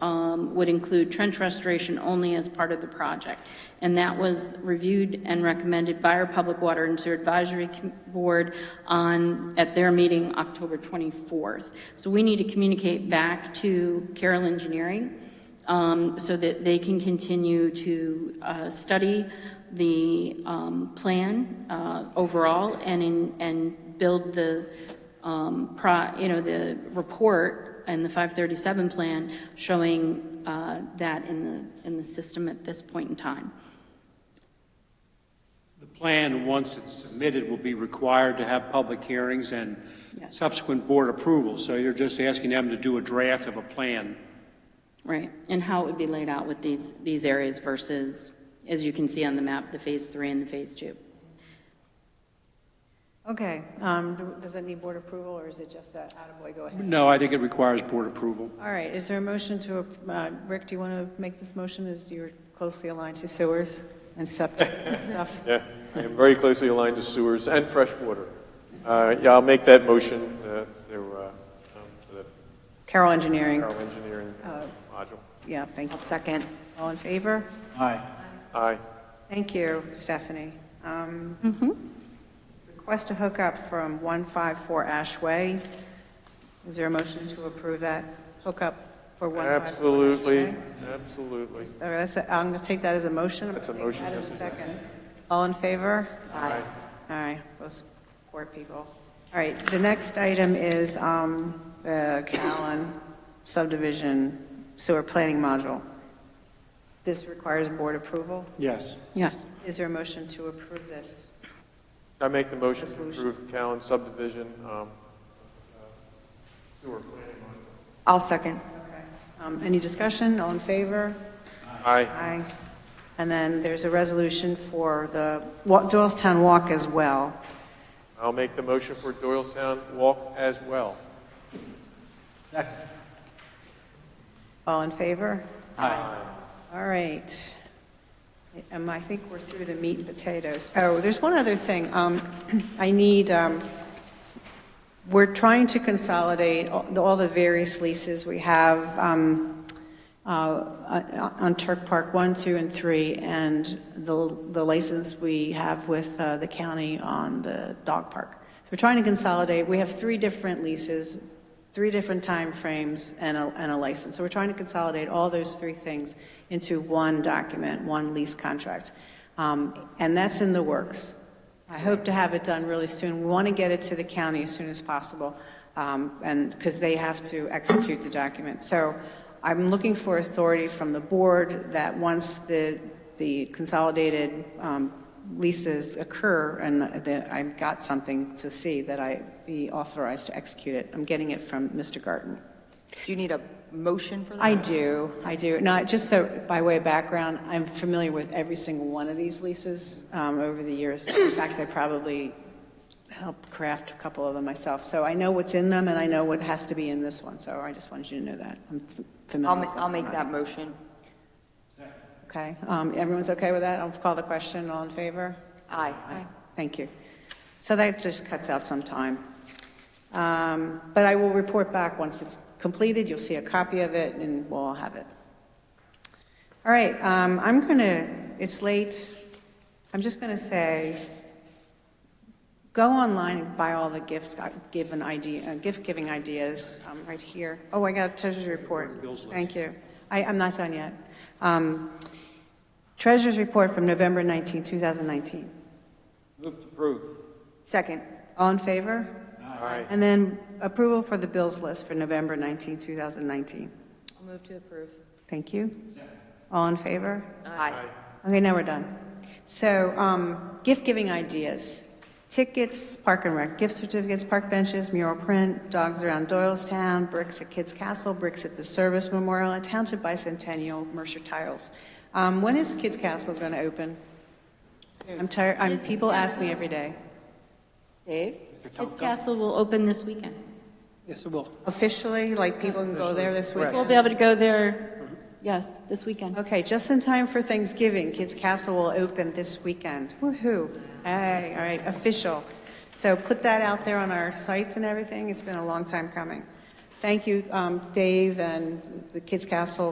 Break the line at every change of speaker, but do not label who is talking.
um, would include trench restoration only as part of the project. And that was reviewed and recommended by our Public Water and Sewer Advisory Com- Board on, at their meeting October 24th. So we need to communicate back to Carroll Engineering um, so that they can continue to uh, study the um, plan uh, overall and, in- and build the, um, pro- you know, the report and the 537 plan showing uh, that in the, in the system at this point in time.
The plan, once it's submitted, will be required to have public hearings and
Yes.
subsequent board approval. So you're just asking them to do a draft of a plan.
Right, and how it would be laid out with these, these areas versus, as you can see on the map, the Phase 3 and the Phase 2.
Okay, um, do- does that need board approval, or is it just that, attaboy, go ahead?
No, I think it requires board approval.
All right, is there a motion to, ap- uh, Rick, do you want to make this motion, as you're closely aligned to sewers and septic and stuff?
Yeah, I am very closely aligned to sewers and fresh water. Uh, Yeah, I'll make that motion uh, to, uh, um, to the
Carroll Engineering,
Carroll Engineering module.
yeah, thank you.
Second.
All in favor?
Aye.
Thank you, Stephanie. Um, Request a hookup from 154 Ashway. Is there a motion to approve that hookup for 154?
Absolutely, absolutely.
All right, that's a- I'm going to take that as a motion. I'm
That's a
gonna take
motion,
that as
yes.
a second. All in favor?
Aye.
All right, those poor people. All right, the next item is um, the Callan subdivision sewer planning module. This requires board approval.
Yes.
Yes.
Is there a motion to approve this?
I make the motion to approve Callan subdivision um, uh, sewer planning
I'll second.
Um, Any discussion? All in favor?
module. Aye.
Aye. And then there's a resolution for the Wa- Doylestown Walk as well.
I'll make the motion for Doylestown Walk as well.
All in favor? Aye. All right. Um, I think we're through the meat and potatoes. Oh, there's one other thing. Um, I need, um, we're trying to consolidate all the- all the various leases we have um, uh, on Turk Park 1, 2, and 3, and the the license we have with uh, the county on the dog park. We're trying to consolidate, we have three different leases, three different timeframes, and a and a license. So we're trying to consolidate all those three things into one document, one lease contract. Um, And that's in the works. I hope to have it done really soon. We want to get it to the county as soon as possible, um, and, because they have to execute the document. So I'm looking for authority from the board that once the, the consolidated um, leases occur, and that I've got something to see, that I be authorized to execute it. I'm getting it from Mr. Garten.
Do you need a motion for that?
I do, I do. Not, just so, by way of background, I'm familiar with every single one of these leases um, over the years. In fact, I probably helped craft a couple of them myself. So I know what's in them, and I know what has to be in this one, so I just wanted you to know that. I'm f- familiar
I'll,
with
ma- I'll
what's
make
in
that motion.
Okay, Um, everyone's okay with that? I'll call the question, all in favor?
Aye.
Thank you. So that just cuts out some time. Um, But I will report back once it's completed, you'll see a copy of it, and we'll all have it. All right, um, I'm going to, it's late, I'm just going to say, go online and buy all the gift uh, given idea, uh, gift-giving ideas um, right here. Oh, I got a treasurer's report. Thank you. I, I'm not done yet. Um, Treasurer's report from November 19, 2019.
Second.
All in favor?
Aye.
And then approval for the bills list for November 19, 2019.
I'll move to approve.
Thank you. All in favor?
Aye.
Okay, now we're done. So, um, gift-giving ideas, tickets, park and rec, gift certificates, park benches, mural print, dogs around Doylestown, bricks at Kids Castle, bricks at the Service Memorial, and Township Bicentennial, Mercer Tiles. Um, When is Kids Castle going to open? I'm tired, I'm, people ask me every day.
Dave? Kids Castle will open this weekend.
Yes, it will.
Officially, like, people can go there this weekend?
We'll be able to go there, yes, this weekend.
Okay, just in time for Thanksgiving, Kids Castle will open this weekend. Woo-hoo. Hey, all right, official. So put that out there on our sites and everything. It's been a long time coming. Thank you, um, Dave and the Kids Castle